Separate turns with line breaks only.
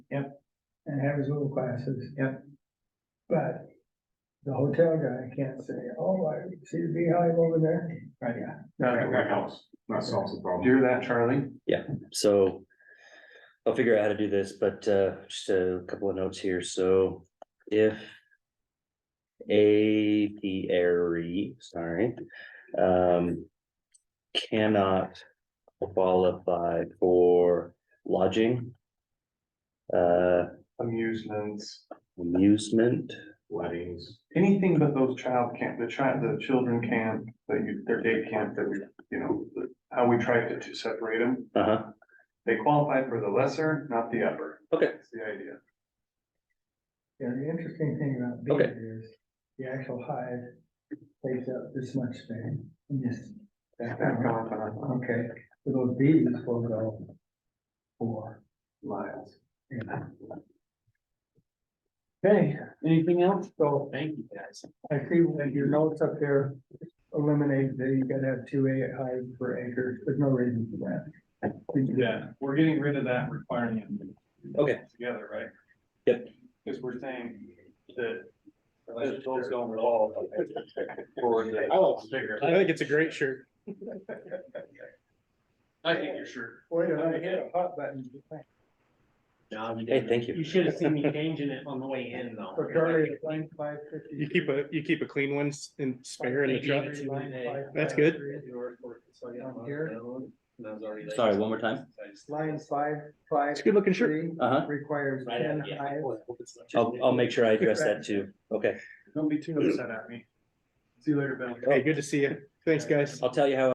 and have his little classes.
Yep.
But the hotel guy can't say, oh, I see the beehive over there.
Right,
That, that
yeah.
helps, that solves the problem.
Do you hear that, Charlie?
so. I'll figure out how to do this, but uh, just a couple of notes here, so if. Apiary, E, sorry, um. Cannot qualify for lodging. Uh,
Amusements,
amusement,
Weddings,
anything but those child camp, the child, the children camp, that you, their day camp that we, you know, the- how we tried to, to separate them.
uh-huh,
They qualify for the lesser, not the upper.
Okay.
That's the idea.
Yeah, the interesting thing about
Okay.
bees is the actual hive takes up this much space. and Yes,
That- that gone on
okay, so those bees will go for,
Miles.
you know.
Okay, anything else?
So
Thank you, guys.
I see when your notes up there eliminate that you gotta have two eight hive per acre. There's no reason for that.
Yeah, we're getting rid of that requirement.
Okay.
Together, right?
Yep.
Cause we're saying that. that Those don't revolve.
I will.
Bigger.
I think it's a great shirt.
I think you're sure.
Wait, I hit a hot button.
hey, thank you.
You should have seen me changing it on the way in though.
So Charlie, it's line five fifty.
You keep a, you keep a clean one s- and spare in the
They gave
truck.
it to me today.
That's good.
Down here.
And I was already like-
Sorry, one more time?
Line five, five.
It's a good looking shirt.
three
Uh-huh,
Requires
Right,
ten
yeah.
hive.
I'll, I'll make sure I address that too, okay,
Don't be too upset at me. See you later, Ben.
Hey, good to see you. Thanks, guys.
I'll tell you how